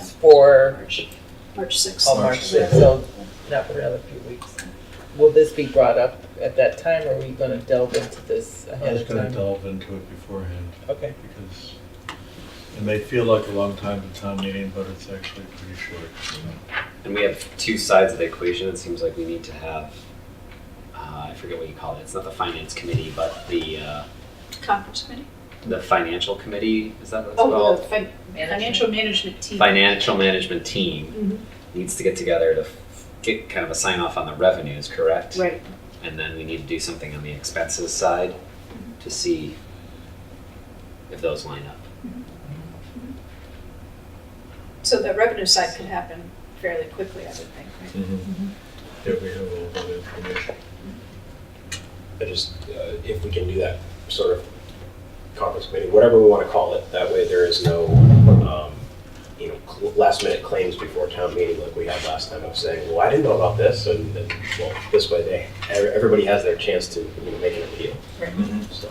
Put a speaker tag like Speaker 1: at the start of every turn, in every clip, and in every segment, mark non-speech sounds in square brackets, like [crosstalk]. Speaker 1: for,
Speaker 2: March, March sixth.
Speaker 1: oh, March
Speaker 3: March
Speaker 1: sixth, so not for another few weeks. Will this be brought up at that time, or are we gonna delve into this
Speaker 3: I
Speaker 1: ahead
Speaker 3: was
Speaker 1: of
Speaker 3: gonna
Speaker 1: time?
Speaker 3: delve into it beforehand
Speaker 1: Okay,
Speaker 3: because it may feel like a long time to town meeting, but it's actually pretty short.
Speaker 4: And we have two sides of the equation. It seems like we need to have, uh, I forget what you call it. It's not the finance committee, but the uh,
Speaker 2: Conference committee?
Speaker 4: the financial committee. Is that what it's
Speaker 2: Oh,
Speaker 4: called?
Speaker 2: the fin- financial management
Speaker 5: E.
Speaker 2: team.
Speaker 4: Financial management team
Speaker 2: Mhm.
Speaker 5: Mm-hmm.
Speaker 4: needs to get together to f- get kind of a sign off on the revenues, correct?
Speaker 2: Right,
Speaker 4: And then we need to do something on the expenses side to see if those line up.
Speaker 2: so the revenue side could happen fairly quickly, I would think, right?
Speaker 3: If we have all that information.
Speaker 6: I just, uh, if we can do that sort of conference committee, whatever we want to call it, that way there is no, um, you know, cl- last minute claims before town meeting like we had last time of saying, well, I didn't know about this, and then, well, this way they, ev- everybody has their chance to, you know, make an appeal, so,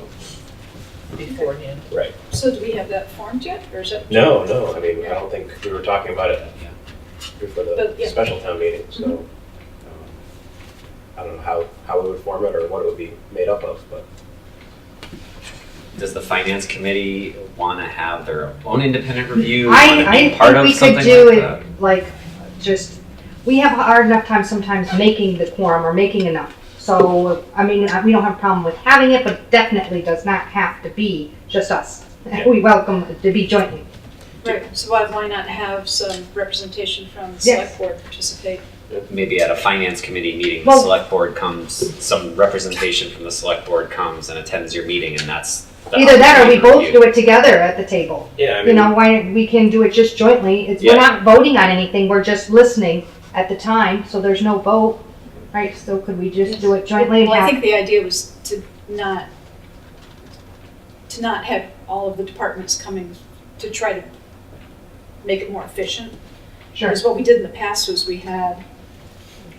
Speaker 1: beforehand.
Speaker 6: right.
Speaker 2: So do we have that formed yet, or is it?
Speaker 6: No, no, I mean, I don't think, we were talking about it
Speaker 4: Yeah.
Speaker 6: before
Speaker 2: But,
Speaker 6: the
Speaker 2: yeah.
Speaker 6: special town meeting, so,
Speaker 2: Mhm.
Speaker 6: um, I don't know how, how we would form it or what it would be made up of, but
Speaker 4: Does the finance committee want to have their own independent review? wanna be
Speaker 5: I, I
Speaker 4: part of
Speaker 5: think we
Speaker 4: something
Speaker 5: could do
Speaker 4: like that?
Speaker 5: it, like, just, we have hard enough time sometimes making the quorum or making enough. So, I mean, I- we don't have a problem with having it, but definitely does not have to be just us.
Speaker 6: Yeah.
Speaker 5: We welcome it to be jointly.
Speaker 2: Right, so why, why not have some representation from the
Speaker 5: Yes.
Speaker 2: select board participate?
Speaker 4: maybe at a finance committee meeting, the
Speaker 5: Well-
Speaker 4: select board comes, some representation from the select board comes and attends your meeting, and that's. the
Speaker 5: Either that or we
Speaker 4: opportunity
Speaker 5: both
Speaker 4: for
Speaker 5: do it together at the table.
Speaker 6: yeah, I mean.
Speaker 5: You know, why, we can do it just jointly. It's, we're
Speaker 6: Yeah.
Speaker 5: not voting on anything, we're just listening at the time, so there's no vote, right? So could we just do it jointly? and
Speaker 2: Well, I
Speaker 5: have-
Speaker 2: think the idea was to not, to not have all of the departments coming to try to make it more efficient.
Speaker 5: Sure.
Speaker 2: Because what we did in the past was we had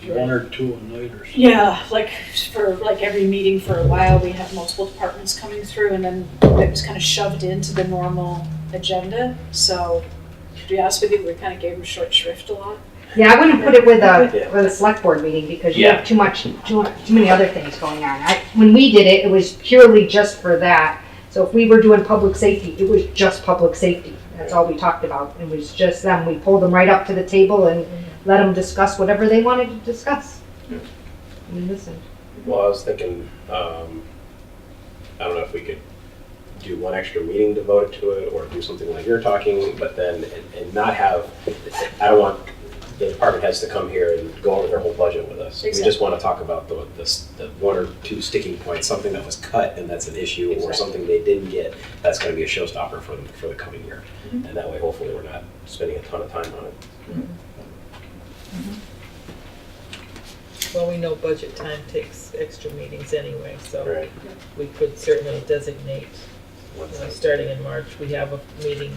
Speaker 3: One or two a night or something.
Speaker 2: Yeah, like for like every meeting for a while, we had multiple departments coming through and then it was kind of shoved into the normal agenda. So to be honest with you, we kind of gave them short shrift a lot.
Speaker 5: Yeah, I wouldn't put it with a,
Speaker 6: Yeah.
Speaker 5: with a select board meeting because you
Speaker 4: Yeah.
Speaker 5: have too much, too, too many other things going on. I, when we did it, it was purely just for that. So if we were doing public safety, it was just public safety. That's all we talked about. It was just them. We pulled them right up to the table and let them discuss whatever they wanted to discuss.
Speaker 6: Yeah.
Speaker 5: We listened.
Speaker 6: Well, I was thinking, um, I don't know if we could do one extra meeting devoted to it or do something like you're talking, but then, and, and not have, I don't want the department heads to come here and go over their whole budget with us. We just want to talk about the, the, s- the one or two sticking points, something that was cut and that's an issue or
Speaker 2: Exactly.
Speaker 6: something they didn't get, that's going to be a showstopper for them for the coming year.
Speaker 2: Mhm.
Speaker 6: And that way, hopefully, we're not spending a ton of time on it.
Speaker 1: Well, we know budget time takes extra meetings anyway, so
Speaker 6: Right.
Speaker 1: we could certainly designate, you know, starting in March, we have a meeting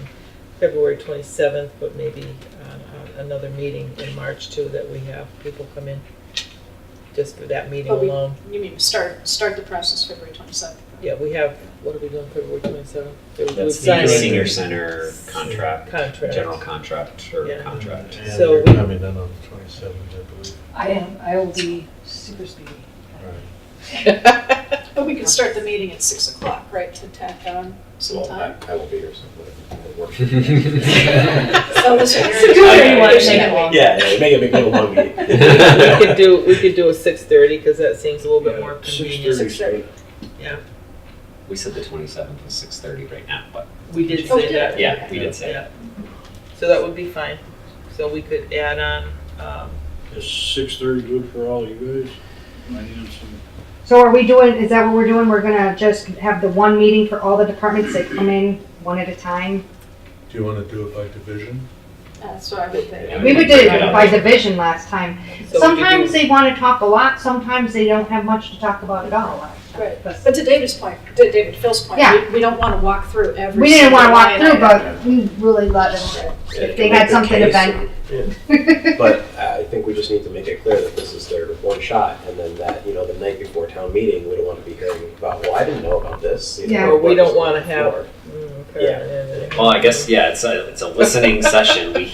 Speaker 1: February twenty-seventh, but maybe uh, another meeting in March too, that we have people come in just for that meeting
Speaker 2: But we-
Speaker 1: alone.
Speaker 2: You mean, start, start the process February twenty-seventh?
Speaker 1: Yeah, we have, what are we doing February twenty-seventh?
Speaker 4: That's
Speaker 3: Sign
Speaker 4: the
Speaker 3: it.
Speaker 4: senior center contract,
Speaker 1: Contract.
Speaker 4: general contract or
Speaker 1: Yeah.
Speaker 4: contract.
Speaker 3: And
Speaker 1: So
Speaker 3: you're
Speaker 1: we-
Speaker 3: coming in on the twenty-seventh, I believe.
Speaker 7: I am, I will be super speedy.
Speaker 8: [laughs]
Speaker 3: Right.
Speaker 2: But we could start the meeting at six o'clock, right, to tack on some
Speaker 6: Well,
Speaker 2: time?
Speaker 6: I, I will be here, so whatever, we'll work.
Speaker 2: So this
Speaker 1: [laughs]
Speaker 2: is.
Speaker 7: So do
Speaker 6: whatever you
Speaker 2: You're
Speaker 6: want, make
Speaker 7: it
Speaker 2: saying-
Speaker 6: Yeah, yeah, make it make it a long meeting.
Speaker 1: We could do, we could do a six-thirty, because that seems a little bit more convenient.
Speaker 2: Six thirty.
Speaker 4: We said the twenty-seventh was six thirty right now, but
Speaker 1: We did
Speaker 2: Oh, we
Speaker 1: say
Speaker 2: did?
Speaker 1: that.
Speaker 4: yeah, we did say
Speaker 1: Yeah. So that would be fine. So we could add on, um,
Speaker 8: Is six thirty good for all you guys? I need some,
Speaker 5: So are we doing, is that what we're doing? We're gonna just have the one meeting for all the departments that come in, one at a time?
Speaker 3: Do you wanna do it by division?
Speaker 2: That's what I would think.
Speaker 4: Yeah.
Speaker 5: We would do it by division last time.
Speaker 1: so we could
Speaker 5: Sometimes
Speaker 1: do-
Speaker 5: they want to talk a lot, sometimes they don't have much to talk about at all.
Speaker 2: Right.
Speaker 5: But
Speaker 2: But to David's point, to David Phil's point,
Speaker 5: Yeah.
Speaker 2: we, we don't want to walk through every.
Speaker 5: We didn't want to
Speaker 2: single
Speaker 5: walk
Speaker 2: line
Speaker 5: through,
Speaker 2: item.
Speaker 5: but we really let them, if they had something to vent. [laughs]
Speaker 6: But I think we just need to make it clear that this is their one shot, and then that, you know, the night before town meeting, we don't want to be hearing about, well, I didn't know about this. you know,
Speaker 5: Yeah.
Speaker 1: Or we
Speaker 6: what
Speaker 1: don't
Speaker 6: was on
Speaker 1: wanna
Speaker 6: the
Speaker 1: have-
Speaker 6: floor.
Speaker 1: Mm,
Speaker 6: Yeah.
Speaker 1: okay.
Speaker 4: well, I guess yeah, it's a it's a listening session. We